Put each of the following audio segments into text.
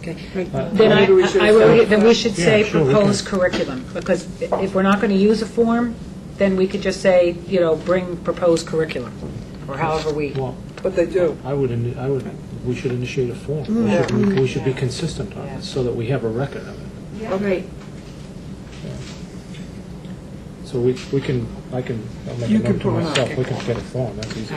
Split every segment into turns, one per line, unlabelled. Okay.
Right.
Then I,
Maybe we should
I would,
have-
then we should say
Yeah, sure, we
proposed curriculum, because if we're not going to use a form, then we could just say, you know, bring proposed curriculum, or however we,
Well,
But they do.
I would, ini- I would, we should initiate a form. We
Mm.
should, be- we should be consistent on it, so that we have a record of it.
Okay.
So we, we can, I can, I'll make a
You can
note to
pull it out,
myself, we
okay.
can get a form, that's easy.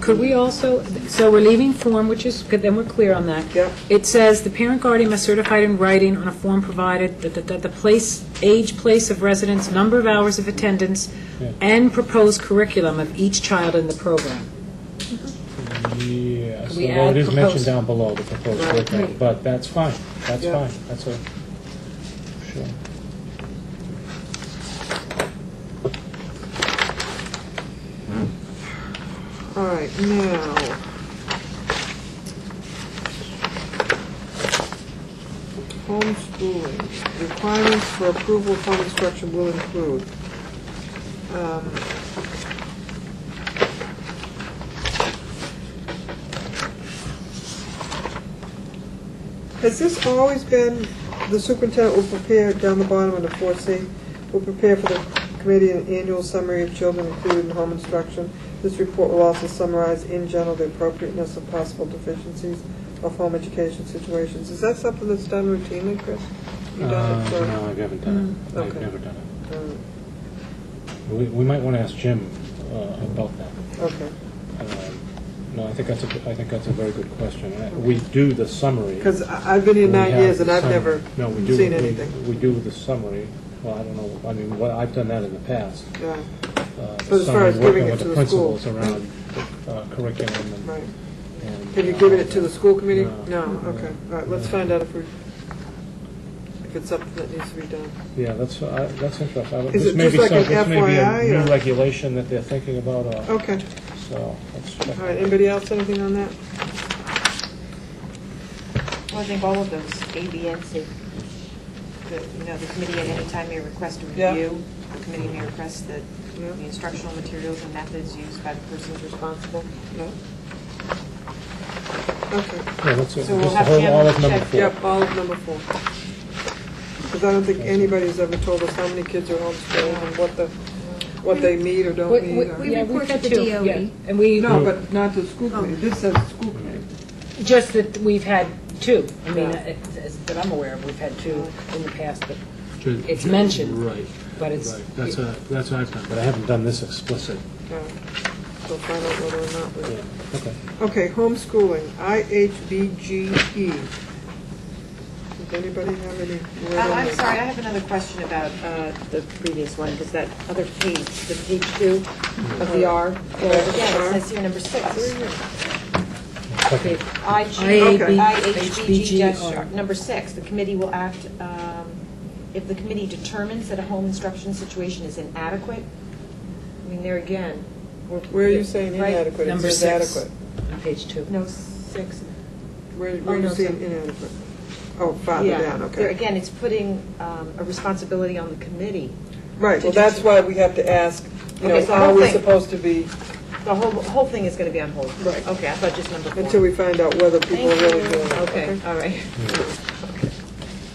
could we also, so we're leaving form, which is, good. then we're clear on that.
Yep.
It says, "The parent guardian must certify it in writing on a form provided that, that- that the place, age, place of residence, number of hours of attendance,
Yeah.
and proposed curriculum of each child in the program."
Yeah,
Could
so
we add
it is
proposed?
mentioned down below, the proposed curriculum, but that's fine, that's
Yeah.
fine, that's a, sure.
All right, now. Homeschooling, requirements for approval of home instruction will include. um, Has this always been, the superintendent will prepare, down the bottom of the four C, will prepare for the committee an annual summary of children included in home instruction. This report will also summarize in general the appropriateness of possible deficiencies of home education situations. Is that something that's done routinely, Chris? You done it
Uh,
for-
No, I haven't done it,
Mm,
I've
okay.
never done it.
Uh,
We, we might want to ask Jim uh, about that.
Okay,
Um, No, I think that's a, I think that's a very good question. I- We do the summary.
because I've been here
We
nine
have
years
the
and I've
summary.
never
No, we do-
seen
we-
anything.
We do the summary, well, I don't know, I mean, what, I've done that in the past.
Yeah,
uh, the
But as far
summary,
as giving
working
it
with
to
the
the school.
principals around uh, curriculum and.
right.
and,
Have you
uh,
given it to the school committee?
No.
No, okay, all right, let's find out if we, if it's something that needs to be done.
Yeah, that's, I- that's interesting. I-
Is
this
it
may
just
be
like
some-
an
This may be
FYI
a
or-
new regulation that they're thinking about, uh,
Okay,
so. let's check.
all right, anybody else, anything on that?
Well, I think all of those, A, B, and C. The, you know, the committee at any time may request a
Yeah.
review. The committee may request the
Yeah.
the instructional materials and methods used by the persons responsible.
No? Okay,
Yeah, that's it.
So we'll
Just the
have
whole,
Jim
all of number
check.
four.
yep, all of number four. Because I don't think anybody's ever told us how many kids are homeschooled and what the, what they need or don't need. or-
Yeah,
report
got
to
two,
DOE.
yeah. And we.
No, but not the school committee, this says school committee.
Just that we've had two, I mean,
Yeah.
it- it's- that I'm aware of, we've had two in the past, but,
Ju-
It's
ju-
mentioned,
Right,
but it's,
right. That's a, that's what I've done, but I haven't done this explicit.
Yeah. We'll find out whether or not we.
Yeah, okay.
Okay, homeschooling, IHBGE. E. Does anybody have any?
Uh, I'm sorry, I have another question about uh, the previous one, because that other page, the page two of the R, there again, it says here number six.
Okay.
I G-
Okay.
IHBG,
HBGR.
yes, number six, the committee will act, um, if the committee determines that a home instruction situation is inadequate, I mean, there again, we're...
Where are you saying
right?
inadequate? It
Number
says
six.
adequate.
on page two.
No, six.
Where,
Oh,
where are you
no,
seeing
sorry.
inadequate? Oh, farther
Yeah.
down,
There
okay.
again, it's putting um, a responsibility on the committee.
Right, well,
Did you-
that's why we have to ask, you know,
Okay, so
how are we
hopefully-
supposed to be,
The whole, whole thing is going to be on hold.
Right.
Okay, I thought just number four.
until we find out whether people are
Thank
really
you.
doing it.
Okay, all right.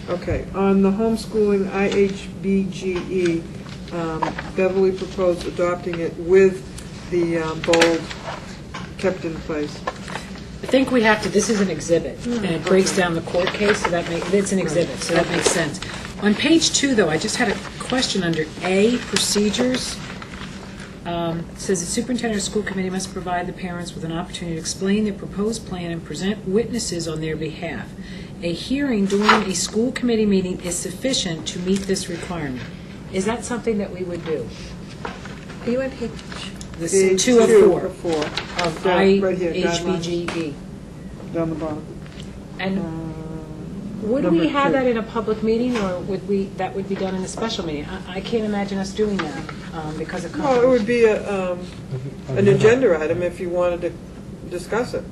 Okay, on the homeschooling IHBGE, um, Beverly proposed adopting it with the um, bold kept in place.
I think we have to, this is an exhibit, and it breaks down the court case, so that makes, it's an exhibit, so that makes sense. On page two, though, I just had a question under A, procedures. Um, it Says the superintendent or school committee must provide the parents with an opportunity to explain their proposed plan and present witnesses on their behalf. A hearing during a school committee meeting is sufficient to meet this requirement. Is that something that we would do?
Are you on page,
This
Page
two of
two
four
of four,
of
down- right here,
IHBGE.
down the bottom. Uh,
And would
Number
we have
two.
that in a public meeting, or would we, that would be done in a special meeting? I I can't imagine us doing that um, because of
Well, it
conflict.
would be a, um, an agenda item if you wanted to discuss it.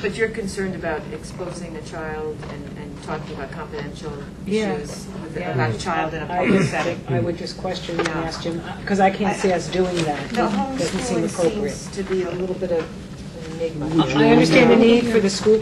But you're concerned about exposing the child and, and talking about confidential
Yeah.
issues with-
Yeah.
about a child in a
I
public
just-
setting.
I would just question and ask Jim, because I can't see us doing that.
The
Doesn't seem
homeschooling
appropriate.
seems to be a little bit of an enigma.
I understand the need for the school